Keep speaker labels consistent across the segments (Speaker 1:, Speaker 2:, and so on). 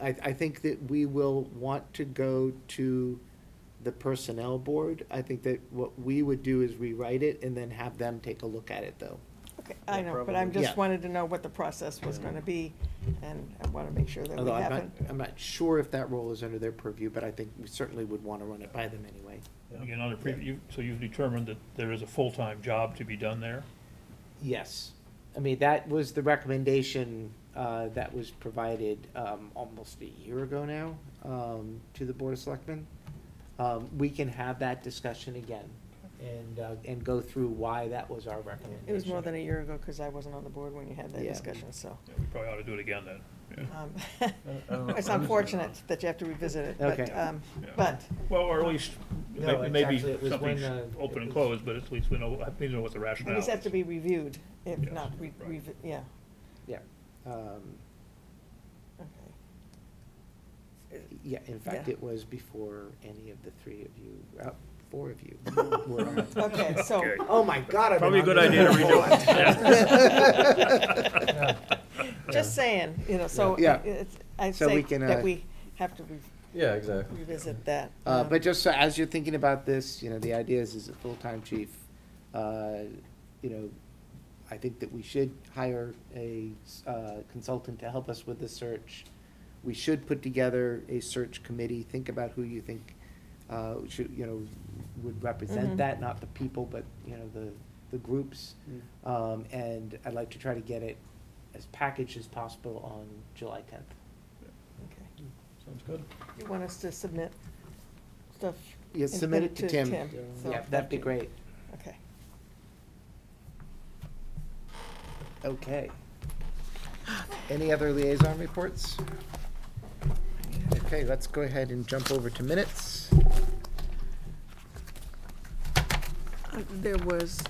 Speaker 1: I, I think that we will want to go to the personnel board. I think that what we would do is rewrite it and then have them take a look at it, though.
Speaker 2: Okay, I
Speaker 3: Yeah,
Speaker 2: know, but
Speaker 3: probably.
Speaker 2: I'm
Speaker 1: Yeah.
Speaker 2: just wanted to know what the process was gonna be, and I wanna make sure that we
Speaker 1: Although I'm not,
Speaker 2: haven't.
Speaker 1: I'm not sure if that role is under their purview, but I think we certainly would want to run it by them anyway.
Speaker 4: Again, on a previ- you- so you've determined that there is a full-time job to be done there?
Speaker 1: Yes. I mean, that was the recommendation uh, that was provided um, almost a year ago now um, to the Board of Selectmen. Um, We can have that discussion again and, uh, and go through why that was our recommendation.
Speaker 2: It was more than a year ago, cause I wasn't on the board when you had that
Speaker 1: Yeah.
Speaker 2: discussion, so.
Speaker 4: Yeah, We probably ought to do it again then. Yeah.
Speaker 2: um,
Speaker 3: I don't know.
Speaker 2: It's unfortunate that you have to revisit it, but,
Speaker 1: Okay.
Speaker 2: um,
Speaker 4: Yeah.
Speaker 2: but,
Speaker 4: Well, or at least,
Speaker 1: No, it's
Speaker 4: maybe
Speaker 1: actually- it was
Speaker 4: something's
Speaker 1: when, uh, it
Speaker 4: open and
Speaker 1: was-
Speaker 4: closed, but at least we know, at least we know what the rationale
Speaker 2: at
Speaker 4: is.
Speaker 2: least have to be reviewed, if
Speaker 4: Yes,
Speaker 2: not, re-
Speaker 4: right.
Speaker 2: revi- yeah,
Speaker 1: Yeah. Um,
Speaker 2: okay.
Speaker 1: Yeah, in fact,
Speaker 2: Yeah.
Speaker 1: it was before any of the three of you, uh, four of you. were on it.
Speaker 2: Okay, so,
Speaker 4: Okay.
Speaker 1: Oh, my God. I've been
Speaker 4: Probably a
Speaker 1: on
Speaker 4: good
Speaker 1: this
Speaker 4: idea to
Speaker 1: for a long
Speaker 2: redo
Speaker 1: time.
Speaker 4: redo it.
Speaker 2: just saying, you know, so,
Speaker 1: Yeah.
Speaker 2: it's, I
Speaker 1: So
Speaker 2: say
Speaker 1: we can, uh,
Speaker 2: that we have to re-
Speaker 3: Yeah, exactly.
Speaker 2: revisit that.
Speaker 1: Uh,
Speaker 2: um,
Speaker 1: but just so, as you're thinking about this, you know, the idea is, is a full-time chief, uh, you know, I think that we should hire a, uh, consultant to help us with the search. We should put together a search committee, think about who you think, uh, should, you know, would represent
Speaker 2: Mhm.
Speaker 1: that, not the people, but, you know, the, the groups. Um, and I'd like to try to get it as packaged as possible on July tenth.
Speaker 2: okay.
Speaker 3: Sounds good.
Speaker 2: You want us to submit stuff?
Speaker 1: Yeah,
Speaker 2: and
Speaker 1: submit it to Tim.
Speaker 2: so-
Speaker 1: Yeah, that'd be great.
Speaker 2: Okay.
Speaker 1: Okay. Any other liaison reports? Okay, let's go ahead and jump over to minutes.
Speaker 2: Um, There was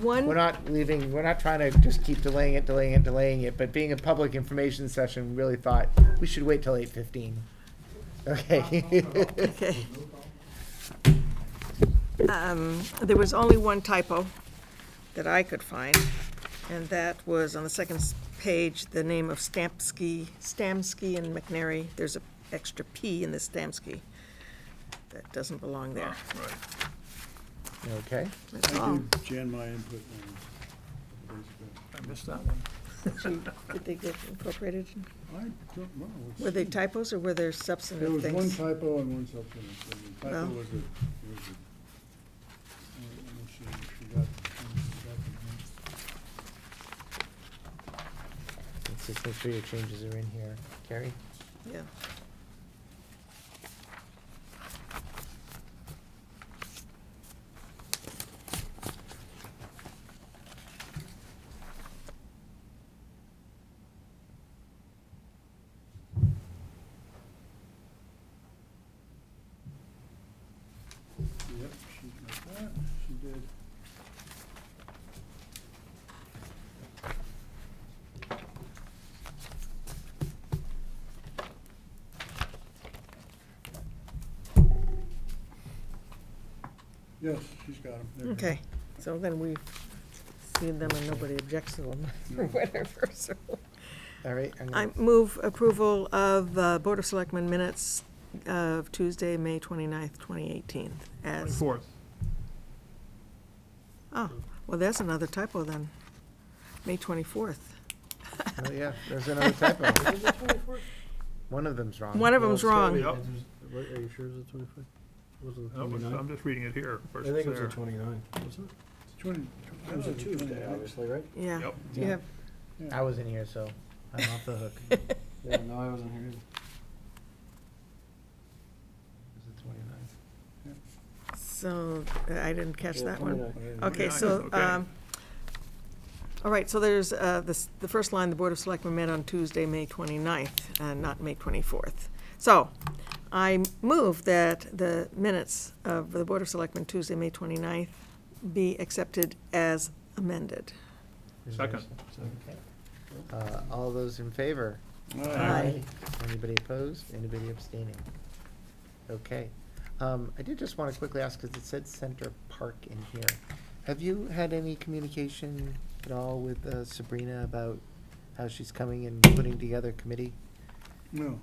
Speaker 1: We're
Speaker 2: one,
Speaker 1: not leaving, we're not trying to just keep delaying it, delaying it, delaying it, but being a public information session, we really thought we should wait till eight fifteen. Okay.
Speaker 2: okay. Um, There was only one typo that I could find, and that was on the second s- page, the name of Stamsky, Stamsky and McNary. There's a extra P in the Stamsky. That doesn't belong there.
Speaker 4: Right.
Speaker 1: Okay,
Speaker 2: That's
Speaker 5: I
Speaker 2: all.
Speaker 5: gave Jan my input on
Speaker 4: I
Speaker 5: this,
Speaker 4: missed that one.
Speaker 2: Did they get incorporated?
Speaker 5: but I don't know. it's-
Speaker 2: Were they typos or were there
Speaker 5: There
Speaker 2: substantive
Speaker 5: was one
Speaker 2: things?
Speaker 5: typo and one substantive. thing. The typo
Speaker 2: Well.
Speaker 5: was a, was a. uh, I don't know if she- she got- she got the hint.
Speaker 1: let's just make sure your changes are in here. Carrie?
Speaker 2: Yeah.
Speaker 5: Yep, she got that, she did. Yes, she's got them.
Speaker 2: Okay, so then we've seen them and nobody objects to them or whatever, so.
Speaker 1: All right, I'm
Speaker 2: I
Speaker 1: gonna,
Speaker 2: move approval of uh, Board of Selectmen minutes of Tuesday, May 29th, 2018 as,
Speaker 4: Twenty-fourth.
Speaker 2: oh, well, that's another typo then. May 24th.
Speaker 1: oh yeah, there's another typo. One of them's wrong.
Speaker 2: One of them's wrong.
Speaker 4: Yep.
Speaker 3: Are you sure it was the twenty-fifth? Was it the
Speaker 4: No, it's- I'm
Speaker 3: twenty-ninth?
Speaker 4: just reading it here.
Speaker 3: I
Speaker 4: versus
Speaker 3: think it was the
Speaker 4: there.
Speaker 3: twenty-ninth, wasn't it?
Speaker 5: Twenty.
Speaker 3: It was a Tuesday, obviously, right?
Speaker 2: Yeah.
Speaker 4: Yep.
Speaker 2: Do you have,
Speaker 1: I wasn't here, so I'm off the hook.
Speaker 3: Yeah, no, I wasn't here either. It was the twenty-ninth.
Speaker 2: so, uh, I didn't catch that one. Okay,
Speaker 4: 29th,
Speaker 2: so,
Speaker 4: okay.
Speaker 2: um, all right, so there's, uh, this, the first line, the Board of Selectmen met on Tuesday, May 29th, uh, not May 24th. So I move that the minutes of the Board of Selectmen Tuesday, May 29th be accepted as amended.
Speaker 4: Second.
Speaker 1: Uh, all those in favor?
Speaker 2: Aye.
Speaker 1: Anybody opposed? Anybody abstaining? Okay. Um, I did just want to quickly ask, because it said Center Park in here. Have you had any communication at all with uh, Sabrina about how she's coming and putting together a committee?
Speaker 5: No,